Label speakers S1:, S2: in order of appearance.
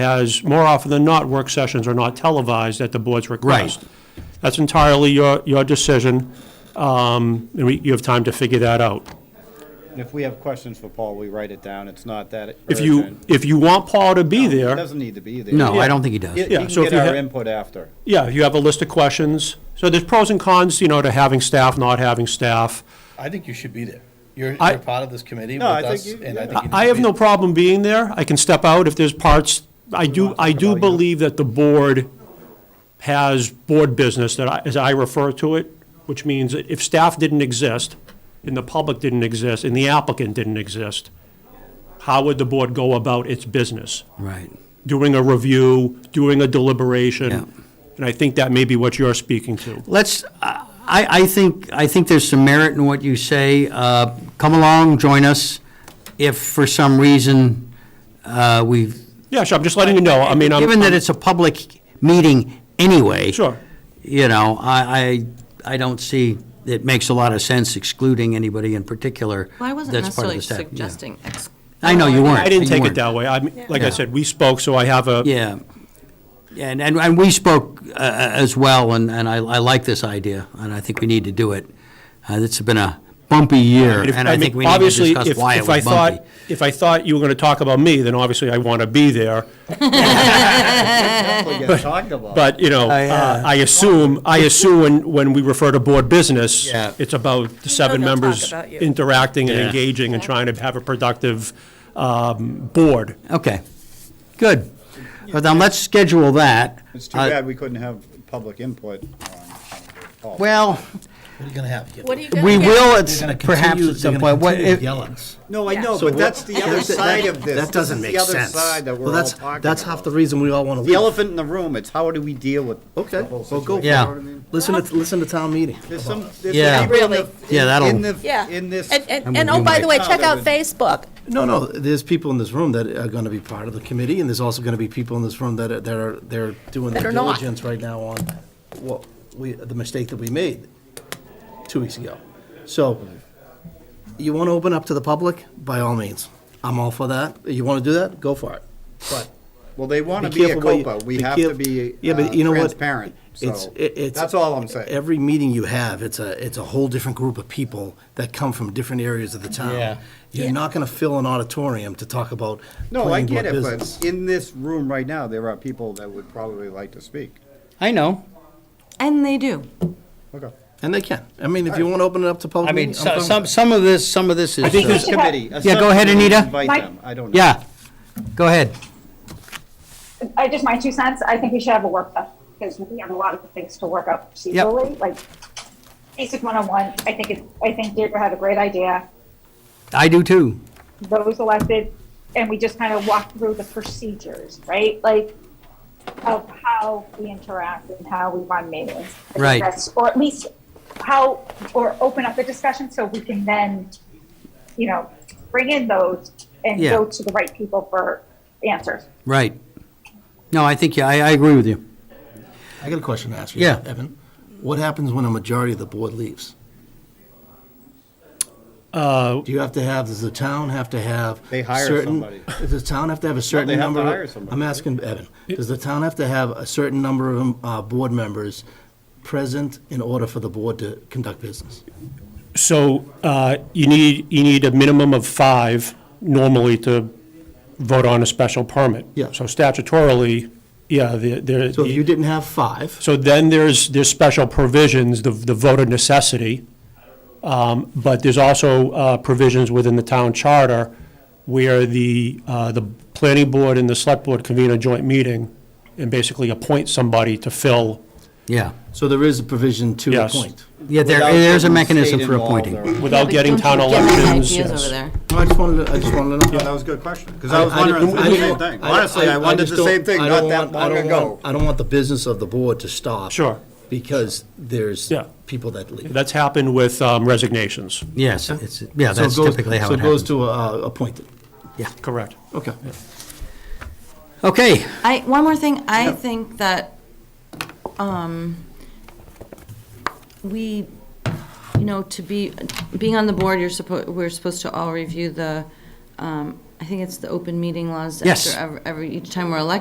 S1: has, more often than not, work sessions are not televised at the board's request.
S2: Right.
S1: That's entirely your, your decision, um, and we, you have time to figure that out.
S3: And if we have questions for Paul, we write it down. It's not that urgent.
S1: If you, if you want Paul to be
S3: It
S1: there,
S3: doesn't need to be there.
S2: No, I don't think he does.
S3: You you
S1: Yeah,
S3: can
S1: so if
S3: get
S1: you
S3: our
S1: ha-
S3: input after.
S1: yeah, you have a list of questions. So there's pros and cons, you know, to having staff, not having staff.
S4: I think you should be there. You're,
S1: I-
S4: you're part of this committee with
S3: No, I think
S4: us,
S3: you-
S4: and I
S3: yeah.
S4: think you need
S1: I I
S4: to
S1: have
S4: be
S1: no problem being there. I can step out if there's parts. I do, I do believe that the board has board business that I, as I refer to it, which means that if staff didn't exist, and the public didn't exist, and the applicant didn't exist, how would the board go about its business?
S2: Right.
S1: Doing a review, doing a
S2: Yeah.
S1: deliberation? And I think that may be what you're speaking to.
S2: Let's, I, I think, I think there's some merit in what you say. Uh, Come along, join us. If for some reason uh, we've,
S1: Yeah, sure, I'm just letting you know. I mean, I'm.
S2: given that it's a public meeting anyway.
S1: Sure.
S2: You know, I, I, I don't see, it makes a lot of sense excluding anybody in particular.
S5: Well, I wasn't
S2: that's part of
S5: necessarily
S2: the staff, yeah.
S5: suggesting. ex-
S2: I know, you weren't.
S1: I didn't
S2: You
S1: take it
S2: weren't.
S1: that way. I, mean, like I
S2: Yeah.
S1: said, we spoke, so I have a,
S2: Yeah. And, and, and we spoke uh, as well, and, and I, I like this idea, and I think we need to do it. Uh, It's been a bumpy year,
S1: But if-
S2: and
S1: I
S2: I
S1: mean,
S2: think we need to
S1: obviously,
S2: discuss
S1: if-
S2: why it
S1: if I
S2: was
S1: thought-
S2: bumpy.
S1: If I thought you were going to talk about me, then obviously I want to be there.
S3: Definitely get talked about.
S1: But, you know,
S2: I, uh,
S1: uh, I assume, I assume when, when we refer to board business,
S2: Yeah.
S1: it's about the seven
S5: they'll talk
S1: members
S5: about you.
S1: interacting and
S2: Yeah.
S1: engaging and trying to have a productive um, board.
S2: Okay, good. Well, then let's schedule that.
S3: It's too
S2: Uh,
S3: bad we couldn't have public input on Paul.
S2: Well,
S4: What are you gonna have? You're
S5: What are you
S2: we
S5: going to
S2: will,
S5: get?
S2: at
S4: gonna
S2: perhaps
S4: continue-
S2: at
S4: they're
S2: some
S4: gonna
S2: point. What-
S4: continue to
S2: if-
S4: yell at us.
S6: No, I
S5: Yeah.
S6: know,
S5: So
S6: but that's the other
S3: that's the-
S6: side
S3: that-
S6: of this.
S3: that doesn't
S6: This
S3: make
S6: is the other
S3: sense.
S6: side that
S3: Well,
S6: we're all
S3: that's-
S6: talking about.
S3: that's half the
S6: reason we all want to
S3: The elephant in the room, it's how do we deal with
S6: Okay,
S3: the whole
S6: well, go.
S3: situation?
S2: Yeah.
S3: You know what I mean?
S6: Listen to, listen to town meeting.
S3: There's some, there's
S2: Yeah.
S3: some people in the-
S5: Really?
S2: Yeah, that'll-
S3: in the-
S5: Yeah.
S3: In this.
S5: And, and,
S2: And
S5: and
S2: we
S5: oh, by
S2: might-
S5: the way, check
S3: No,
S5: out
S3: that
S5: Facebook.
S6: No, no, there's people in this room that are going to be part of the committee, and there's also going to be people in this room that are, that are, they're doing
S5: That
S6: their
S5: are not.
S6: diligence right now on what we, the mistake that we made two weeks ago. So, you want to open up to the public, by all means. I'm all for that. You want to do that, go for it. But
S3: Well, they want
S6: be
S3: to be a
S6: careful what you-
S3: COPA. We
S6: be
S3: have
S6: caref-
S3: to be
S6: Yeah,
S3: uh,
S6: but you know what?
S3: transparent.
S6: It's,
S3: So
S6: it- it's.
S3: that's all I'm saying.
S6: Every meeting you have, it's a, it's a whole different group of people that come from different areas of the town.
S4: Yeah.
S6: You're not gonna fill an auditorium to talk about
S3: No, I
S6: planning board
S3: get it,
S6: business.
S3: but in this room right now, there are people that would probably like to speak.
S2: I know.
S5: And they do.
S3: Okay.
S6: And they can. I mean, if you wanna open it up to public.
S2: I mean,
S6: meeting, I'm
S2: so-
S6: fine
S2: some,
S6: with
S2: some of this, some of this is.
S1: think
S2: uh,
S1: there's-
S3: Committee. a
S2: Yeah, go ahead,
S3: subcommittee,
S2: Anita.
S3: Invite
S7: My-
S3: them. I don't know.
S2: Yeah, go ahead.
S7: I just, my two cents, I think we should have a workshop because we have a lot of things to work out procedurally, like basic one-on-one. I think it, I think Deirdre had a great idea.
S2: I do too.
S7: Those elected, and we just kind of walk through the procedures, right? Like of how we interact and how we run meetings. I think
S2: Right.
S7: that's- Or at least how, or open up the discussion so we can then, you know, bring in those and
S2: Yeah.
S7: go to the right people for answers.
S2: Right. No, I think, yeah, I, I agree with you.
S6: it. I got a question to ask you.
S2: Yeah.
S6: Evan, what happens when a majority of the board leaves?
S1: Uh,
S6: Do you have to have, does the town have to have?
S3: They hire
S6: certain-
S3: somebody.
S6: Does the town have to have a certain
S3: have to
S6: number? of-
S3: hire somebody,
S6: I'm
S3: right?
S6: asking Evan, does the town have to have a certain number of um, uh, board members present in order for the board to conduct business?
S1: So uh, you need, you need a minimum of five normally to vote on a special permit.
S6: Yeah.
S1: So statutorily, yeah, the- there.
S6: So if you didn't have five,
S1: So then there's, there's special provisions, the, the vote of necessity, um, but there's also uh, provisions within the town charter where the, uh, the planning board and the select board convene a joint meeting and basically appoint somebody to fill,
S2: Yeah.
S6: so there is a provision to
S1: Yes.
S6: appoint.
S2: Yeah, there,
S3: Without
S2: there's a
S3: getting
S2: mechanism
S3: state
S2: for
S3: involved
S2: appointing.
S3: or-
S1: without getting town elections.
S5: Ideas
S1: yes.
S5: over there.
S6: No, I just wanted, to- I just wanted to know.
S3: Yeah, that was a good question, because I was
S6: I- I
S3: wondering
S6: didn't-
S3: the
S6: I
S3: same
S6: don't-
S3: thing. Honestly, I wondered
S6: just
S3: the
S6: don't-
S3: same thing
S6: I
S3: not
S6: don't
S3: that
S6: want- I
S3: long
S6: don't
S3: ago.
S6: want- I don't want the business of the board to stop.
S1: Sure.
S6: Because there's
S1: Yeah.
S6: people that leave.
S1: That's happened with um, resignations.
S2: Yes, it's, yeah,
S6: So it
S2: that's
S6: goes-
S2: typically how it
S6: So it goes
S2: happens.
S6: to uh, appointed.
S1: Correct.
S6: Okay.
S2: Okay,
S5: I, one more thing, I think that, um, we, you know, to be, being on the board, you're supposed, we're supposed to all review the, um, I think it's the open meeting laws.
S2: Yes.
S5: after ev- Every, each time we're elected.